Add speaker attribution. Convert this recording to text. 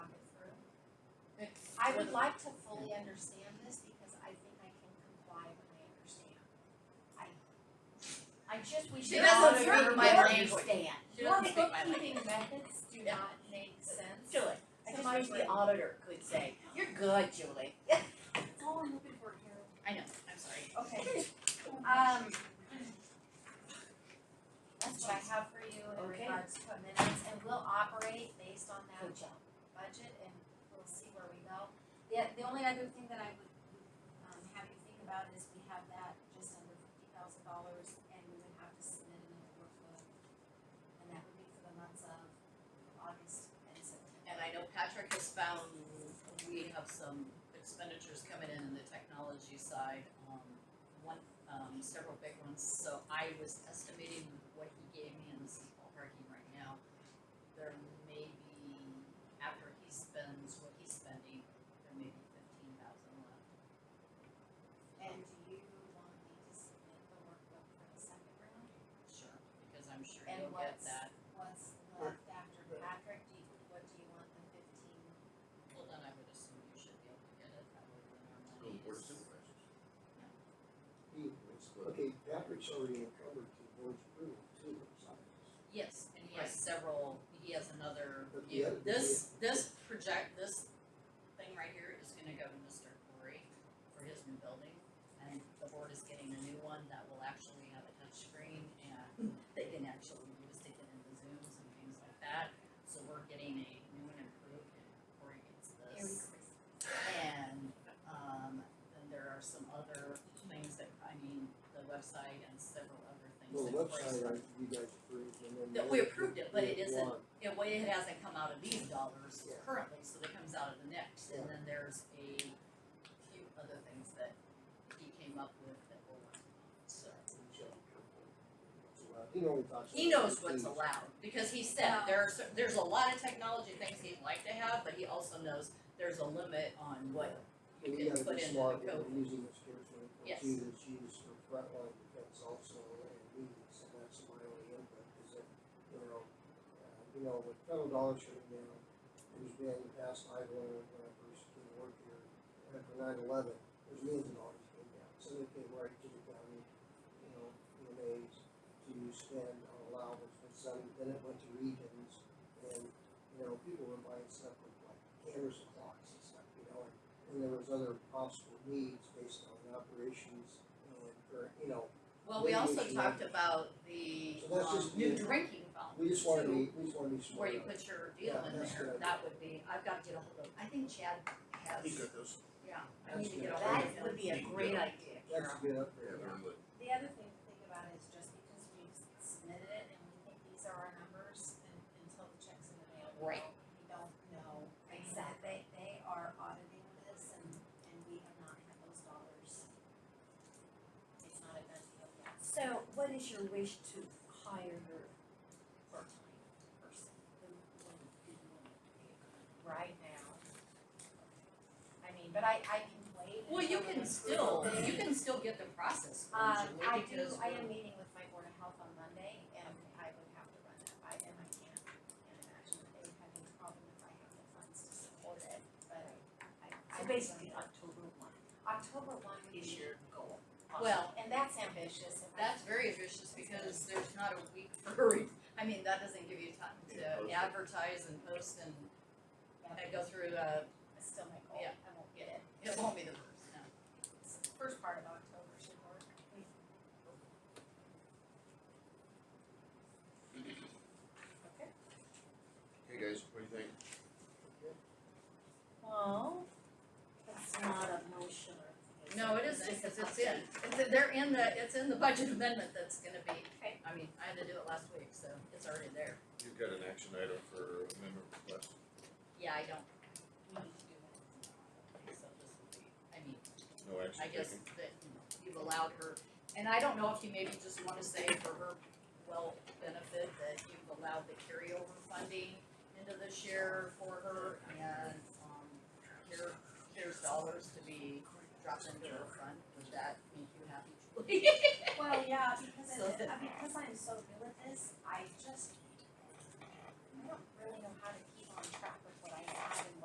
Speaker 1: I would like to fully understand this because I think I can comply when I understand. I, I just wish
Speaker 2: She
Speaker 1: the
Speaker 2: doesn't
Speaker 1: auditor
Speaker 2: speak
Speaker 1: would
Speaker 2: my
Speaker 1: understand.
Speaker 2: language. She
Speaker 1: Your
Speaker 2: doesn't speak my
Speaker 1: bookkeeping methods do not make sense.
Speaker 2: Julie, I just wish the auditor could say, you're good, Julie.
Speaker 1: That's all I'm hoping for, Carol.
Speaker 2: I know, I'm sorry.
Speaker 1: Okay. Um. That's what I have for you in
Speaker 2: Okay.
Speaker 1: regards to amendments, and we'll operate based on that
Speaker 2: Good job.
Speaker 1: budget and we'll see where we go. The, the only other thing that I would, um, have you think about is we have that just under fifty thousand dollars and we would have to submit another workbook. And that would be for the months of August and September.
Speaker 3: And I know Patrick has found we have some expenditures coming in in the technology side, um, one, um, several big ones. So I was estimating what he gave me, and this is ballparking right now, there may be, after he spends what he's spending, there may be fifteen thousand left.
Speaker 1: And do you want me to submit the workbook for the second round?
Speaker 3: Sure, because I'm sure
Speaker 1: And
Speaker 3: you'll get
Speaker 1: what's-
Speaker 3: that.
Speaker 1: What's left after Patrick, do you, what do you want the fifteen?
Speaker 3: Well, then I would assume you should be able to get it, that would be our
Speaker 4: Go
Speaker 3: money
Speaker 4: board of
Speaker 3: is-
Speaker 4: supervisors.
Speaker 5: He-
Speaker 4: Let's go.
Speaker 5: Okay, Patrick's already encumbered to the board's approval too, besides.
Speaker 3: Yes, and he has several, he has another,
Speaker 5: But the
Speaker 3: you-
Speaker 5: other-
Speaker 3: this, this project, this thing right here is gonna go to Mr. Corey for his new building. And the board is getting a new one that will actually have a touchscreen and they can actually use to get into Zooms and things like that. So we're getting a new and improved and Corey gets this. And, um, then there are some other things that, I mean, the website and several other things
Speaker 5: Well,
Speaker 3: that
Speaker 5: the
Speaker 3: Corey's.
Speaker 5: website, I, you guys approved and then.
Speaker 3: That we approved it, but it
Speaker 5: Yeah,
Speaker 3: isn't-
Speaker 5: one.
Speaker 3: Yeah, well, it hasn't come out of these dollars
Speaker 5: Yeah.
Speaker 3: currently, so that comes out of the next, and
Speaker 5: Yeah.
Speaker 3: then there's a few other things that he came up with that we're working on, so.
Speaker 5: Well, He only talks.
Speaker 3: He
Speaker 5: about
Speaker 3: knows what's
Speaker 5: fifteen.
Speaker 3: allowed, because he said, there are, cer- there's a lot of technology things he'd like to have, but he also knows there's a limit on what you
Speaker 5: And we
Speaker 3: can
Speaker 5: gotta
Speaker 3: put
Speaker 5: be
Speaker 3: into the
Speaker 5: smart when
Speaker 3: code.
Speaker 5: we're using this curriculum,
Speaker 3: Yes.
Speaker 5: too, that she was for frontline defense also, and we, so that's my only input, is that, you know, uh, you know, with federal dollars shutting down, there's been in the past, I learned when I first came to work here, after nine eleven, there's millions of dollars came down, so they came right to the county, you know, in aids to spend on allowance, but some, then it went to regions, and, you know, people were buying stuff with like cameras and clocks and stuff, you know, and and there was other possible needs based on operations and, or, you know,
Speaker 3: Well, we also
Speaker 5: Radiation.
Speaker 3: talked about the,
Speaker 5: So that's
Speaker 3: um,
Speaker 5: just-
Speaker 3: new drinking fountain
Speaker 5: we just wanna
Speaker 3: too.
Speaker 5: be, we just wanna be smart.
Speaker 3: where you put your deal
Speaker 5: Yeah,
Speaker 3: in
Speaker 5: that's
Speaker 3: there,
Speaker 5: good.
Speaker 3: that would be, I've got to get a hold of, I think Chad has,
Speaker 4: You got those?
Speaker 3: yeah, I need to get a hold of him.
Speaker 2: That would be a great idea, Carol.
Speaker 5: That's a good
Speaker 4: Yeah,
Speaker 5: upgrade.
Speaker 4: they're in the,
Speaker 1: The other thing to think about is just because we've submitted it and we think these are our numbers and until the checks in the mail, we
Speaker 3: Right.
Speaker 1: don't, we don't know. Exactly. They, they are auditing this and, and we have not had those dollars. It's not a done deal yet.
Speaker 2: So what is your wish to hire her part-time person?
Speaker 1: Right now. I mean, but I, I can wait
Speaker 3: Well, you
Speaker 1: until
Speaker 3: can
Speaker 1: the
Speaker 3: still,
Speaker 1: approval.
Speaker 3: you can still get the process going,
Speaker 1: Um,
Speaker 3: Julie,
Speaker 1: I do,
Speaker 3: because
Speaker 1: I am
Speaker 3: we're-
Speaker 1: meeting with my board of health on Monday and I would have to run that by them, I can't, can't imagine that they would have any problem if I have the funds to support it, but I. I-
Speaker 2: So
Speaker 1: I-
Speaker 2: basically October one
Speaker 1: October one would
Speaker 2: is
Speaker 1: be,
Speaker 2: your goal.
Speaker 3: Well,
Speaker 1: and that's ambitious, if I,
Speaker 3: that's very vicious because there's not a week for, re- I mean, that doesn't give you time
Speaker 4: Yeah,
Speaker 3: to
Speaker 4: post it.
Speaker 3: advertise and post and,
Speaker 1: yeah,
Speaker 3: and go through, uh,
Speaker 1: it's still my goal,
Speaker 3: Yeah.
Speaker 1: I won't get it.
Speaker 3: it won't be the first, no.
Speaker 1: It's the First part of October should work.
Speaker 4: hey guys, what do you think?
Speaker 2: Well, that's not a motion or anything.
Speaker 3: No, it
Speaker 2: It's
Speaker 3: isn't,
Speaker 2: just a
Speaker 3: cause it's in,
Speaker 2: concept.
Speaker 3: it's, in- they're in the, it's in the budget amendment that's gonna be,
Speaker 1: Okay.
Speaker 3: I mean, I had to do it last week, so it's already there.
Speaker 4: You've got an action item for amendment request.
Speaker 3: Yeah, I don't,
Speaker 1: We need to do that.
Speaker 3: so this will be, I mean,
Speaker 4: No action
Speaker 3: I
Speaker 4: taken.
Speaker 3: guess that you've allowed her, and I don't know if you maybe just wanna say for her well benefit that you've allowed the carryover funding into this year for her and, um, here, here's dollars to be dropped into her fund, would that make you happy, Julie?
Speaker 1: Well, yeah, because
Speaker 3: So
Speaker 1: it,
Speaker 3: that-
Speaker 1: uh, because I'm so good at this, I